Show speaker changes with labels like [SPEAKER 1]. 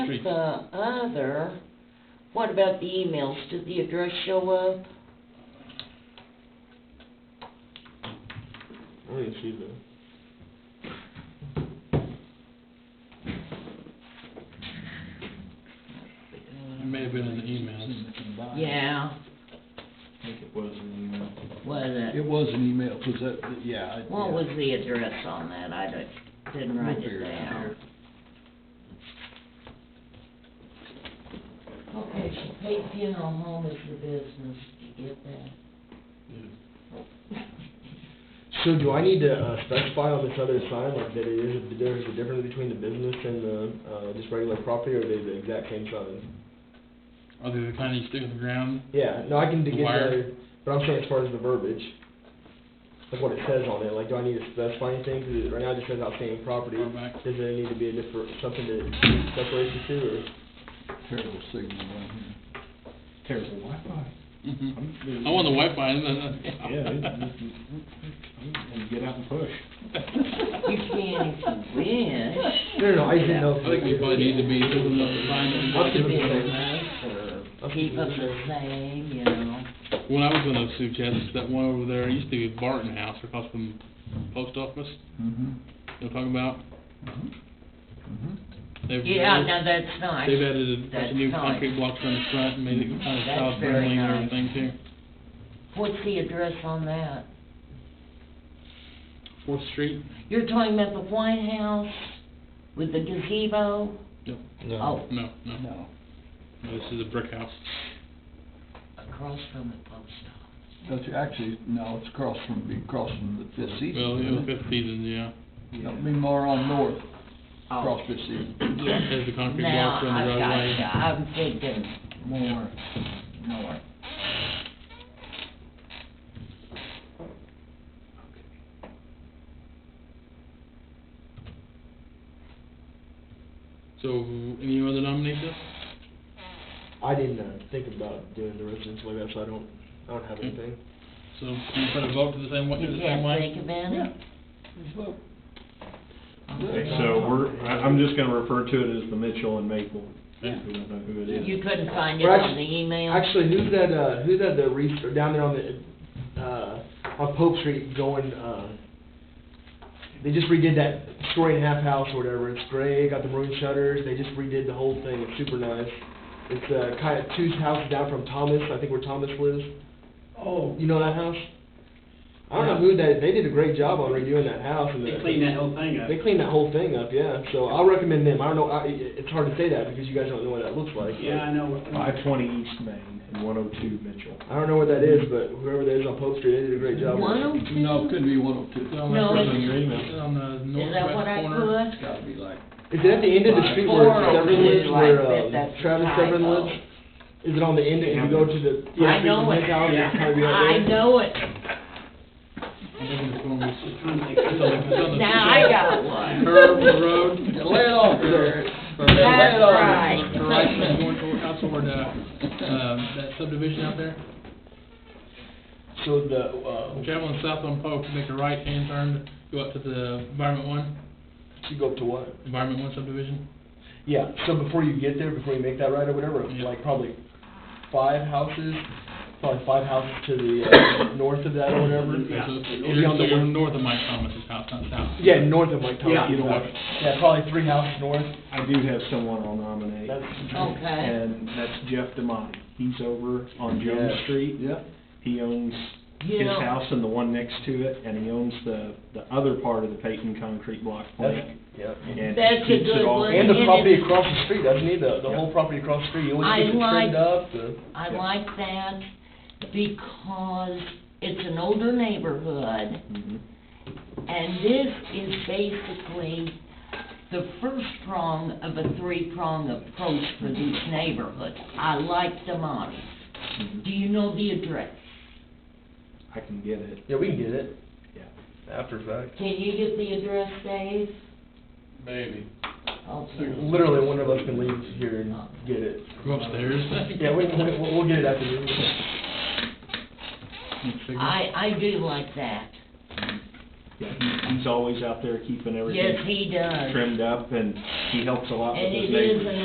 [SPEAKER 1] Street.
[SPEAKER 2] the other, what about the emails? Did the address show up?
[SPEAKER 3] I didn't see that.
[SPEAKER 1] It may have been in the emails.
[SPEAKER 2] Yeah,
[SPEAKER 3] I think it was an email.
[SPEAKER 2] was
[SPEAKER 4] It
[SPEAKER 2] it?
[SPEAKER 4] was an email, 'cause that, yeah. I-
[SPEAKER 2] What
[SPEAKER 4] yeah.
[SPEAKER 2] was the address on that? I don't- didn't
[SPEAKER 4] We'll
[SPEAKER 2] write it
[SPEAKER 4] figure it out
[SPEAKER 2] down.
[SPEAKER 4] here.
[SPEAKER 2] Okay, so paid funeral home is the business, did you get that?
[SPEAKER 3] So do I need to uh, specify on this other side, like that it is, that there's a difference between the business and the, uh, just regular property, or are they the exact same size?
[SPEAKER 1] Are they the kind you stick in the ground?
[SPEAKER 3] Yeah, no, I can
[SPEAKER 1] The
[SPEAKER 3] get
[SPEAKER 1] wire.
[SPEAKER 3] that, but I'm saying as far as the verbiage, like what it says on it, like do I need to specify anything, 'Cause it- right now it just says outstanding property.
[SPEAKER 1] Far back.
[SPEAKER 3] Does there need to be a different, something to separate the two, or?
[SPEAKER 4] Terrible signal on
[SPEAKER 3] Terrible Wi-Fi.
[SPEAKER 4] Mm-hmm.
[SPEAKER 1] Mhm. I want the Wi-Fi, and then.
[SPEAKER 3] And get out and push.
[SPEAKER 2] You can if you wish.
[SPEAKER 3] No, no, no, I didn't know.
[SPEAKER 1] I think we probably need to be doing the sign.
[SPEAKER 3] Up to
[SPEAKER 2] Keep
[SPEAKER 3] the
[SPEAKER 2] it
[SPEAKER 3] same.
[SPEAKER 2] nice or keep it the same, you know.
[SPEAKER 1] When I was in those Sioux Chats, that one over there, it used to be Barton House across from the post office,
[SPEAKER 4] Mm-hmm.
[SPEAKER 1] you know, talking about?
[SPEAKER 4] Mm-hmm.
[SPEAKER 1] They've-
[SPEAKER 2] Yeah, no, that's nice.
[SPEAKER 1] They've added a bunch
[SPEAKER 2] That's
[SPEAKER 1] of new
[SPEAKER 2] nice.
[SPEAKER 1] concrete blocks on the front and made it kind of
[SPEAKER 2] That's
[SPEAKER 1] solid
[SPEAKER 2] very
[SPEAKER 1] paneling and
[SPEAKER 2] nice.
[SPEAKER 1] everything too.
[SPEAKER 2] What's the address on that?
[SPEAKER 1] Fourth Street?
[SPEAKER 2] You're talking about the White House with the gazebo?
[SPEAKER 1] No,
[SPEAKER 2] Oh.
[SPEAKER 1] no, no.
[SPEAKER 4] No,
[SPEAKER 1] No, This is a brick house.
[SPEAKER 2] Across from the post
[SPEAKER 4] that's actually, no, it's across from, be across from the fifth season.
[SPEAKER 1] Well, it was
[SPEAKER 4] isn't it?
[SPEAKER 1] fifth season, yeah.
[SPEAKER 4] That'd be more on north,
[SPEAKER 2] office.
[SPEAKER 4] across fifth season.
[SPEAKER 2] Yes.
[SPEAKER 1] There's the concrete blocks on the roadway.
[SPEAKER 2] Now, I gotcha, I'm thinking more north.
[SPEAKER 1] So, any other nominations?
[SPEAKER 3] I didn't, uh, think about doing the residence like that, so I don't, I don't have
[SPEAKER 2] Mm.
[SPEAKER 3] anything.
[SPEAKER 1] So, can you put a vote to the same,
[SPEAKER 2] Did
[SPEAKER 1] one- to
[SPEAKER 2] you
[SPEAKER 1] the same
[SPEAKER 2] guys
[SPEAKER 1] way?
[SPEAKER 2] think about it?
[SPEAKER 4] Just look.
[SPEAKER 5] Okay, so we're, I, I'm just gonna refer to it as the Mitchell and Maple. We
[SPEAKER 1] Yeah.
[SPEAKER 5] don't know who it is.
[SPEAKER 2] You couldn't find it
[SPEAKER 3] Well,
[SPEAKER 2] on the
[SPEAKER 3] actu-
[SPEAKER 2] email?
[SPEAKER 3] Actually, who's that, uh, who's that, the re, or down there on the, uh, on Pope Street going, uh, they just redid that story and a half house or whatever, it's gray, got the maroon shutters, they just redid the whole thing, it's super nice. It's, uh, kinda two houses down from Thomas, I think where Thomas lives,
[SPEAKER 6] Oh,
[SPEAKER 3] you know that house? I don't know who that, they did a great job on redoing that house and
[SPEAKER 6] they
[SPEAKER 3] the-
[SPEAKER 6] cleaned that whole thing up.
[SPEAKER 3] They cleaned that whole thing up, yeah, so I'll recommend them, I don't know, I, it- it's hard to say that because you guys don't know what that looks like.
[SPEAKER 6] Yeah, I know.
[SPEAKER 5] Five twenty East Main and one oh two Mitchell.
[SPEAKER 3] I don't know what that is, but whoever that is on Pope Street, they did a great job.
[SPEAKER 2] One oh two?
[SPEAKER 4] No, could be one oh two.
[SPEAKER 1] It's on the-
[SPEAKER 2] No,
[SPEAKER 1] it's on
[SPEAKER 5] your email.
[SPEAKER 1] it's On the
[SPEAKER 2] Is that what
[SPEAKER 1] northwest
[SPEAKER 2] I
[SPEAKER 1] corner.
[SPEAKER 2] put?
[SPEAKER 4] It's gotta be like,
[SPEAKER 3] Is it at the end of the street where
[SPEAKER 2] Four oh
[SPEAKER 3] Severn
[SPEAKER 2] two,
[SPEAKER 3] lives, where
[SPEAKER 2] like that,
[SPEAKER 3] um,
[SPEAKER 2] that's a
[SPEAKER 3] Travis Severn
[SPEAKER 2] typo.
[SPEAKER 3] lives? Is it on the end, if you go to the, yeah,
[SPEAKER 2] I
[SPEAKER 3] street
[SPEAKER 2] know
[SPEAKER 3] from
[SPEAKER 2] it,
[SPEAKER 3] his house, it's kind of right
[SPEAKER 2] I
[SPEAKER 3] there?
[SPEAKER 2] know it.
[SPEAKER 1] I'm looking at the corner. It's on the- it's on the- it's on the-
[SPEAKER 2] Now I got one.
[SPEAKER 1] Curve of the road.
[SPEAKER 4] lay it off there.
[SPEAKER 1] That's
[SPEAKER 2] That's right.
[SPEAKER 1] The right side going toward, out toward, uh, um, that subdivision out there.
[SPEAKER 3] So the, uh,
[SPEAKER 1] Traveling south on Pope, make a right hand turn, go up to the Environment One,
[SPEAKER 3] you go up to what?
[SPEAKER 1] Environment One subdivision.
[SPEAKER 3] Yeah, so before you get there, before you make that right or whatever,
[SPEAKER 1] Yeah.
[SPEAKER 3] like probably five houses, probably five houses to the uh, north of that or whatever.
[SPEAKER 1] Okay, so it's-
[SPEAKER 3] It'll be on
[SPEAKER 1] You're,
[SPEAKER 3] the
[SPEAKER 1] so you're
[SPEAKER 3] west-
[SPEAKER 1] north of Mike Thomas's house, not south.
[SPEAKER 3] Yeah, north of Mike
[SPEAKER 5] Yeah.
[SPEAKER 3] Thomas, either way. Yeah, probably three houses north.
[SPEAKER 5] I do have someone I'll nominate.
[SPEAKER 3] That's-
[SPEAKER 2] Okay.
[SPEAKER 5] And that's Jeff Demonte. He's over on Jones
[SPEAKER 3] Yeah.
[SPEAKER 5] Street.
[SPEAKER 4] Yeah,
[SPEAKER 5] He owns
[SPEAKER 2] You
[SPEAKER 5] his
[SPEAKER 2] know-
[SPEAKER 5] house and the one next to it, and he owns the, the other part of the Peyton Concrete Block
[SPEAKER 3] That's,
[SPEAKER 5] plant.
[SPEAKER 3] yeah.
[SPEAKER 5] And
[SPEAKER 2] That's a
[SPEAKER 5] keeps it
[SPEAKER 2] good
[SPEAKER 5] all-
[SPEAKER 2] one.
[SPEAKER 3] And the
[SPEAKER 2] And
[SPEAKER 3] property
[SPEAKER 2] it's-
[SPEAKER 3] across the street, doesn't he? The, the
[SPEAKER 5] Yeah.
[SPEAKER 3] whole property across the street,
[SPEAKER 2] I
[SPEAKER 3] you always get it
[SPEAKER 2] like-
[SPEAKER 3] trimmed up, the,
[SPEAKER 2] I
[SPEAKER 5] Yeah.
[SPEAKER 2] like that because it's an older neighborhood
[SPEAKER 5] Mhm.
[SPEAKER 2] and this is basically the first prong of a three-prong approach for these neighborhoods. I like the model.
[SPEAKER 3] Mm-hmm.
[SPEAKER 2] Do you know the address?
[SPEAKER 5] I can get it,
[SPEAKER 3] yeah, we can get it
[SPEAKER 5] yeah.
[SPEAKER 3] after fact.
[SPEAKER 2] Can you get the address, Dave?
[SPEAKER 1] Maybe.
[SPEAKER 2] Okay.
[SPEAKER 3] Literally, one of us can leave here and get it.
[SPEAKER 1] Go upstairs.
[SPEAKER 3] Yeah, we, we, we'll we'll get it after this.
[SPEAKER 2] I, I do like that.
[SPEAKER 5] Yeah, he- he's always out there keeping everything
[SPEAKER 2] Yes, he does.
[SPEAKER 5] trimmed up, and he helps a lot with
[SPEAKER 2] And
[SPEAKER 5] his
[SPEAKER 2] it
[SPEAKER 5] neighbors.
[SPEAKER 2] is an